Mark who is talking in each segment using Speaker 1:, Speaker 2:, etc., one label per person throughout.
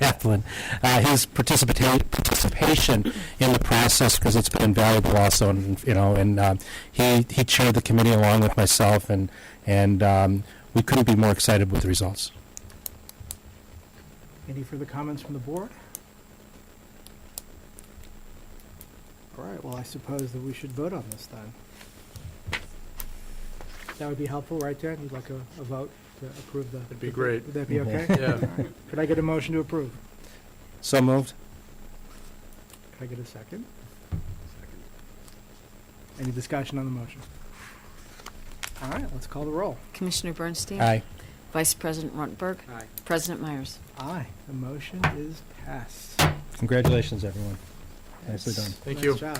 Speaker 1: Chaplin, uh, his participa- participation in the process, because it's been invaluable also, and, you know, and um, he he chaired the committee along with myself, and, and um, we couldn't be more excited with the results.
Speaker 2: Any further comments from the board? All right, well, I suppose that we should vote on this then. That would be helpful, right, Dan? You'd like a, a vote to approve the... That'd
Speaker 3: be great.
Speaker 2: Would that be
Speaker 1: Mhm.
Speaker 2: okay?
Speaker 3: Yeah,
Speaker 2: Could I get a motion to approve?
Speaker 1: So moved?
Speaker 2: Could I get a second? Any discussion on the motion? All right, let's call the roll.
Speaker 4: Commissioner Bernstein?
Speaker 1: Aye.
Speaker 4: Vice President Runtberg?
Speaker 2: Aye.
Speaker 4: President Myers?
Speaker 2: Aye, the motion is passed.
Speaker 1: Congratulations, everyone. Nicely done.
Speaker 3: Thank
Speaker 2: Nice
Speaker 3: you.
Speaker 2: job.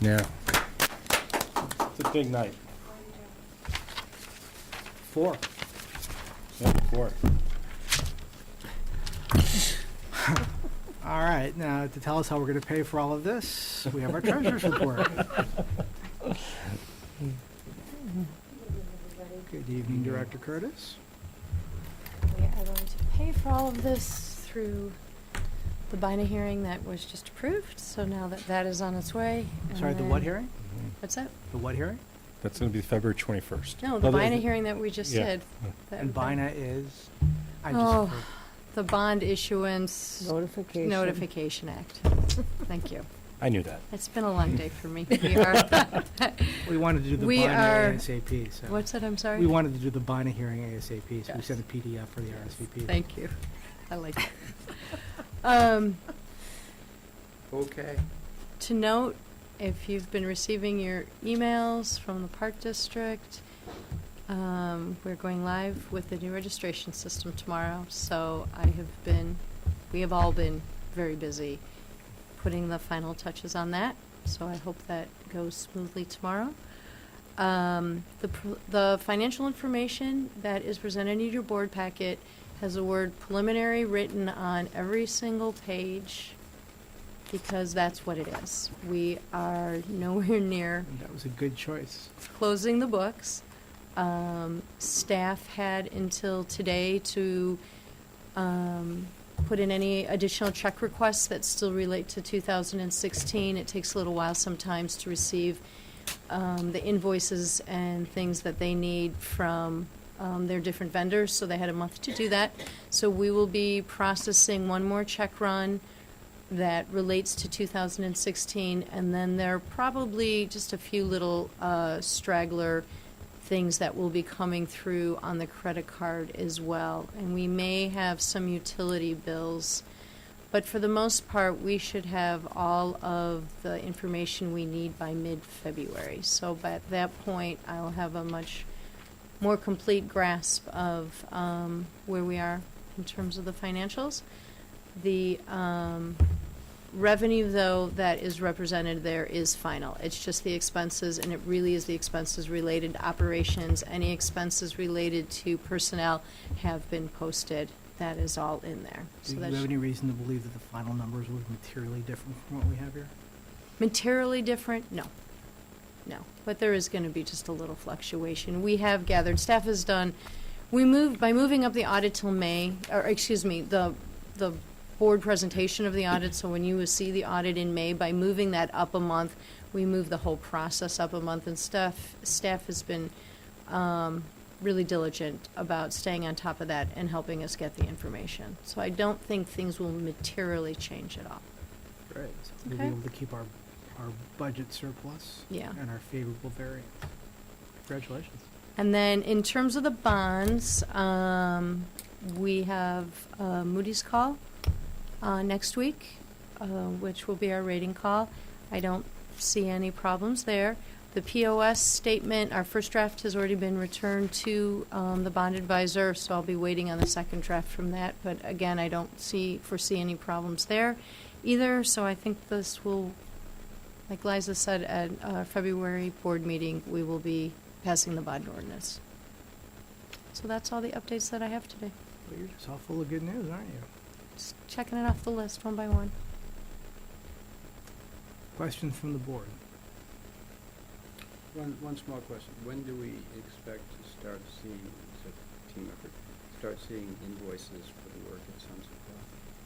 Speaker 1: Yeah. It's a big night.
Speaker 2: Four. All right, now to tell us how we're going to pay for all of this, we have our treasurer's report. Good evening, Director Curtis.
Speaker 5: We are going to pay for all of this through the BINA hearing that was just approved, so now that that is on its way. and
Speaker 2: Sorry, the what
Speaker 5: then-
Speaker 2: hearing?
Speaker 5: What's that?
Speaker 2: The what hearing?
Speaker 1: That's going to be February 21st.
Speaker 5: No, the BINA hearing that we just
Speaker 1: yeah.
Speaker 5: did.
Speaker 2: Oh,
Speaker 5: that
Speaker 2: And
Speaker 5: would be-
Speaker 2: BINA is? I
Speaker 5: Oh.
Speaker 2: just,
Speaker 5: The Bond Issuance
Speaker 6: Notification.
Speaker 5: Notification Act. Thank you.
Speaker 1: I knew that.
Speaker 5: It's been a long day for me. We are,
Speaker 2: we wanted to do the
Speaker 5: We are-
Speaker 2: BINA ASAP, so.
Speaker 5: what's that, I'm sorry?
Speaker 2: We wanted to do the BINA hearing ASAP, so we
Speaker 5: Yes.
Speaker 2: sent a PDF for the RSVP.
Speaker 5: Thank you. I like it. Um,
Speaker 3: okay.
Speaker 5: To note, if you've been receiving your emails from the Park District, um, we're going live with the new registration system tomorrow, so I have been, we have all been very busy putting the final touches on that, so I hope that goes smoothly tomorrow. Um, The, pr- the financial information that is presented in your board packet has the word preliminary written on every single page, because that's what it is. We are nowhere near
Speaker 2: And that was a good choice.
Speaker 5: closing the books. Um, staff had until today to um, put in any additional check requests that still relate to 2016. It takes a little while sometimes to receive um, the invoices and things that they need from um, their different vendors, so they had a month to do that. So we will be processing one more check run that relates to 2016, and then there are probably just a few little uh, straggler things that will be coming through on the credit card as well. And we may have some utility bills, but for the most part, we should have all of the information we need by mid-February. So by that point, I'll have a much more complete grasp of um, where we are in terms of the financials. The um, revenue, though, that is represented there is final. It's just the expenses, and it really is the expenses related to operations. Any expenses related to personnel have been posted. That is all in there.
Speaker 2: Do
Speaker 5: So
Speaker 2: you
Speaker 5: that
Speaker 2: have
Speaker 5: should-
Speaker 2: any reason to believe that the final numbers will be materially different from what we have here?
Speaker 5: Materially different? No. No. But there is going to be just a little fluctuation. We have gathered, staff has done, we moved, by moving up the audit till May, or excuse me, the, the board presentation of the audit, so when you will see the audit in May, by moving that up a month, we move the whole process up a month, and staff, staff has been um, really diligent about staying on top of that and helping us get the information. So I don't think things will materially change at all.
Speaker 2: Right. So we'll be
Speaker 5: Okay.
Speaker 2: able to keep our, our budget surplus.
Speaker 5: Yeah.
Speaker 2: And our favorable variance. Congratulations.
Speaker 5: And then in terms of the bonds, um, we have uh, Moody's call uh, next week, uh, which will be our rating call. I don't see any problems there. The POS statement, our first draft has already been returned to um, the bond advisor, so I'll be waiting on the second draft from that. But again, I don't see, foresee any problems there either, so I think this will, like Liza said, at our February board meeting, we will be passing the bond ordinance. So that's all the updates that I have today.
Speaker 2: Well, you're just all full of good news, aren't you?
Speaker 5: Just checking it off the list one by one.
Speaker 2: Questions from the board?
Speaker 7: One, one small question. When do we expect to start seeing, it's a team effort, start seeing invoices for the work at Sunset Bluff?